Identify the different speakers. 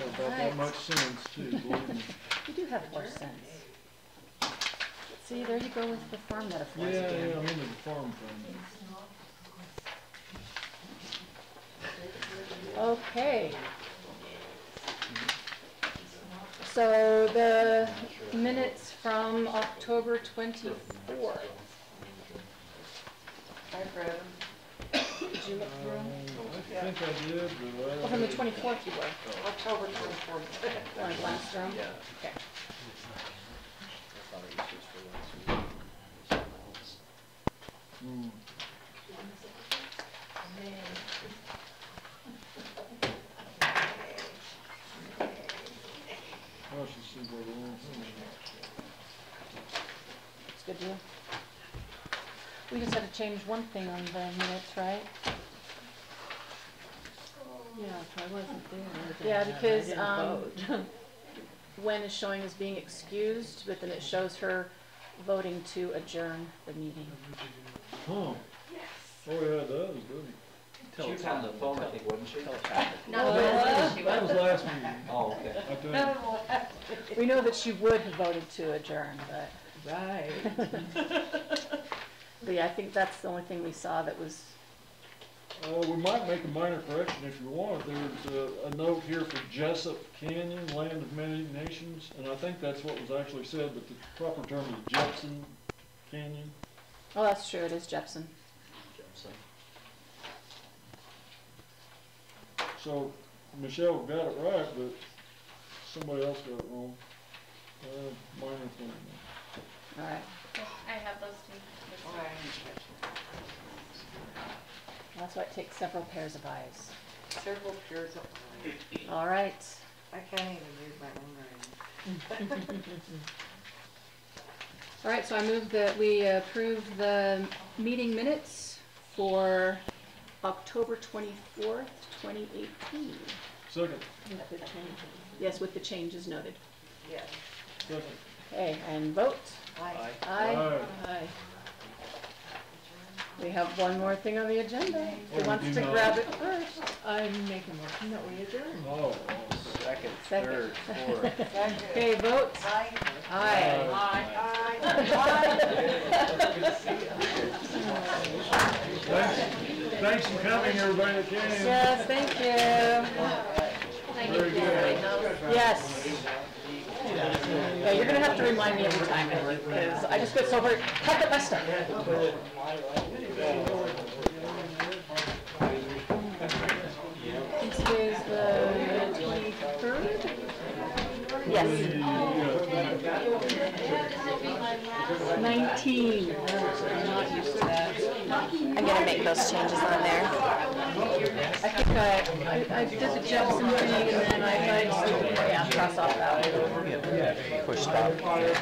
Speaker 1: about that much sense too, believe me.
Speaker 2: You do have more sense. See, there you go with the farm
Speaker 1: Yeah,
Speaker 2: metaphors again.
Speaker 1: yeah, I'm into the farm thing.
Speaker 2: Okay. So the minutes from October twenty-fourth. I've read them. Did you look through them?
Speaker 1: Uh, I think I did, but I.
Speaker 2: Well, from the twenty-fourth you were.
Speaker 3: October twenty-fourth.
Speaker 2: Want to blast through 'em? Okay.
Speaker 1: Hmm. I should see where they went.
Speaker 2: It's good to you. We just had to change one thing on the minutes, right?
Speaker 3: Yeah, if I wasn't there. I would've
Speaker 2: Yeah,
Speaker 3: done that. I
Speaker 2: because,
Speaker 3: didn't
Speaker 2: um,
Speaker 3: vote.
Speaker 2: Wen is showing as being excused, but then it shows her voting to adjourn the meeting.
Speaker 1: Huh. Oh, yeah, that was good.
Speaker 4: She was on the phone, I think, wasn't she?
Speaker 3: No, that's
Speaker 1: That was last meeting,
Speaker 4: Oh, okay.
Speaker 1: I think.
Speaker 2: We know that she would have voted to adjourn, but,
Speaker 3: Right.
Speaker 2: but yeah, I think that's the only thing we saw that was,
Speaker 1: Uh, we might make a minor correction if you want. There's a, a note here for Jessup Canyon, Land of Many Nations, and I think that's what was actually said, but the proper term is Jepson Canyon.
Speaker 2: oh, that's true, it is Jepson.
Speaker 1: So Michelle got it right, but somebody else got it wrong. Uh, minor thing.
Speaker 2: All right,
Speaker 5: I have those two.
Speaker 2: that's why it takes several pairs of eyes.
Speaker 3: Several pairs of eyes.
Speaker 2: All right,
Speaker 3: I can't even read my own writing.
Speaker 2: all right, so I move that we approve the meeting minutes for October twenty-fourth, twenty eighteen.
Speaker 1: Second,
Speaker 2: Yes, with the changes noted.
Speaker 3: Yes.
Speaker 1: second.
Speaker 2: Okay, and vote.
Speaker 3: I
Speaker 2: Aye.
Speaker 1: Aye.
Speaker 2: Aye. We have one more thing on the agenda.
Speaker 1: Oh,
Speaker 2: Who
Speaker 1: we
Speaker 2: wants
Speaker 1: do
Speaker 2: to
Speaker 1: not.
Speaker 2: grab it first?
Speaker 3: I'm making motion that we adjourn.
Speaker 1: Oh.
Speaker 4: Second,
Speaker 2: Second.
Speaker 4: third, fourth.
Speaker 2: Okay, vote.
Speaker 3: Aye.
Speaker 2: Aye.
Speaker 1: Thanks, thanks for coming, everybody that came.
Speaker 2: Yes, thank you.
Speaker 1: Very good.
Speaker 2: Yes. Yeah, you're gonna have to remind me every time, because I just get so hurt. Pack up my stuff. And Today's the twenty-third? Yes.
Speaker 1: Yeah.
Speaker 2: Nineteen. Oh, I'm not used to that.
Speaker 6: I'm gonna make those changes on there.
Speaker 2: I think I, I, I did the Jefferson thing and then I, I, yeah, cross off that one.
Speaker 4: Push stop.